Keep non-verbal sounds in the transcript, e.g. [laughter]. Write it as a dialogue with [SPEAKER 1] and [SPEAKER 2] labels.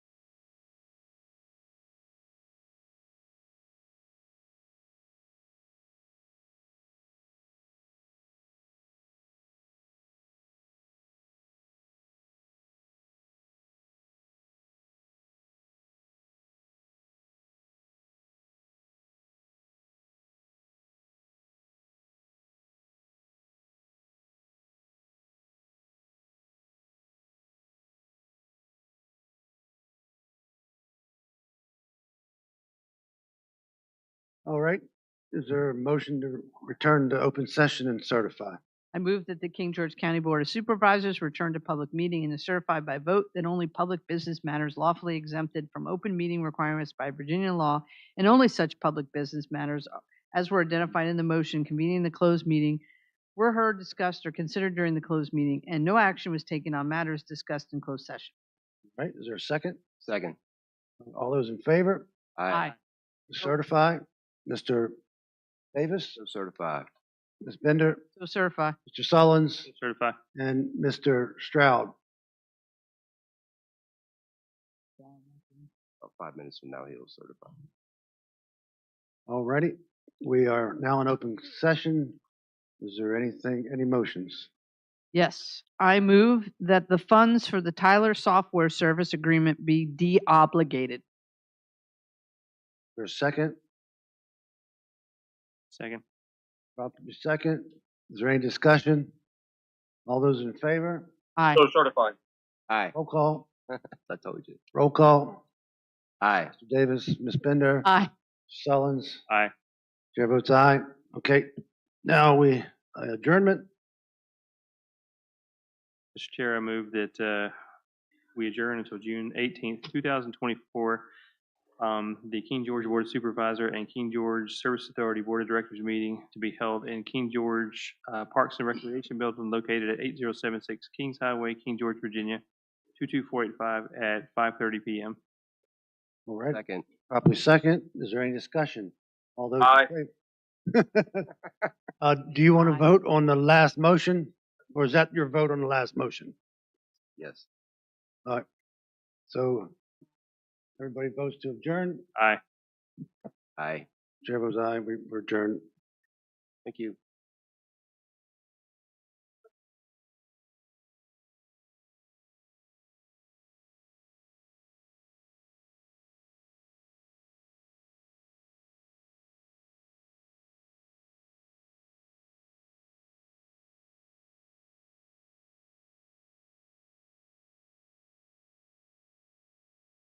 [SPEAKER 1] All right. Is there a motion to return to open session and certify?
[SPEAKER 2] I move that the King George County Board of Supervisors return to public meeting and is certified by vote that only public business matters lawfully exempted from open meeting requirements by Virginia law and only such public business matters as were identified in the motion convening the closed meeting were heard, discussed, or considered during the closed meeting, and no action was taken on matters discussed in closed session.
[SPEAKER 1] All Right? Is there a second?
[SPEAKER 3] Second.
[SPEAKER 1] All those in favor? Certify. Mr. Davis,
[SPEAKER 3] So certified.
[SPEAKER 1] Ms. Bender,
[SPEAKER 2] So certify.
[SPEAKER 1] Mr. Sullins,
[SPEAKER 4] Certify.
[SPEAKER 1] and Mr. Stroud.
[SPEAKER 3] About five minutes from now, he'll certify.
[SPEAKER 1] All righty. We are now in open session. Is there anything, any motions?
[SPEAKER 2] Yes, I move that the funds for the Tyler Software Service Agreement be de-obligated.
[SPEAKER 1] For a second,
[SPEAKER 4] Second.
[SPEAKER 1] properly second. Is there any discussion? All those in favor?
[SPEAKER 2] Aye.
[SPEAKER 4] certify.
[SPEAKER 3] Aye.
[SPEAKER 1] Roll call,
[SPEAKER 3] I told you.
[SPEAKER 1] roll call.
[SPEAKER 3] Aye.
[SPEAKER 1] Mr. Davis, Ms. Bender,
[SPEAKER 2] Aye.
[SPEAKER 1] Sullins.
[SPEAKER 4] Aye.
[SPEAKER 1] Chair votes aye. Okay, now we uh, adjournment.
[SPEAKER 4] Mr. Chair, I move that uh, we adjourn until June eighteenth, two thousand twenty-four. Um, The King George Board of Supervisor and King George Service Authority Board of Directors meeting to be held in King George uh, Parks and Recreation Building located at eight zero seven six Kings Highway, King George, Virginia, two-two-four-eight-five at five thirty PM.
[SPEAKER 1] All right,
[SPEAKER 3] Second.
[SPEAKER 1] properly second. Is there any discussion? All those
[SPEAKER 4] Aye.
[SPEAKER 1] in favor? [laughs] Uh, do you want to
[SPEAKER 2] Aye.
[SPEAKER 1] vote on the last motion? Or is that your vote on the last motion?
[SPEAKER 3] Yes.
[SPEAKER 1] So everybody votes to adjourn.
[SPEAKER 4] Aye.
[SPEAKER 3] Aye.
[SPEAKER 1] Chair votes aye, we we adjourn.
[SPEAKER 3] Thank you.